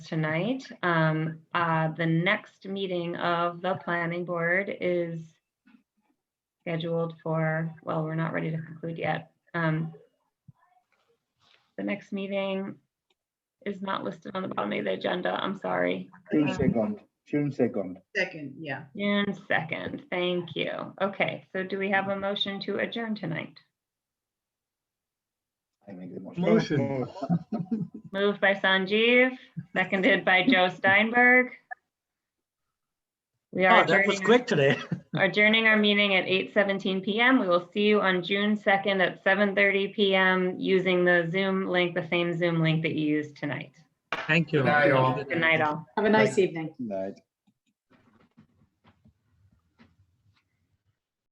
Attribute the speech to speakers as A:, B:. A: tonight. Um, uh, the next meeting of the planning board is scheduled for, well, we're not ready to conclude yet. Um, The next meeting is not listed on the bottom of the agenda. I'm sorry.
B: June second, June second.
C: Second, yeah.
A: June second, thank you. Okay, so do we have a motion to adjourn tonight?
B: I make the motion.
D: Motion.
A: Moved by Sanjeev, seconded by Joe Steinberg. We are
D: Oh, that was
A: adjourning
D: quick today.
A: adjourning our meeting at 8:17 PM. We will see you on June 2nd at 7:30 PM using the Zoom link, the same Zoom link that you used tonight.
D: Thank you.
E: Good night, all.
A: Good night, all.
F: Have a nice evening.
B: Night.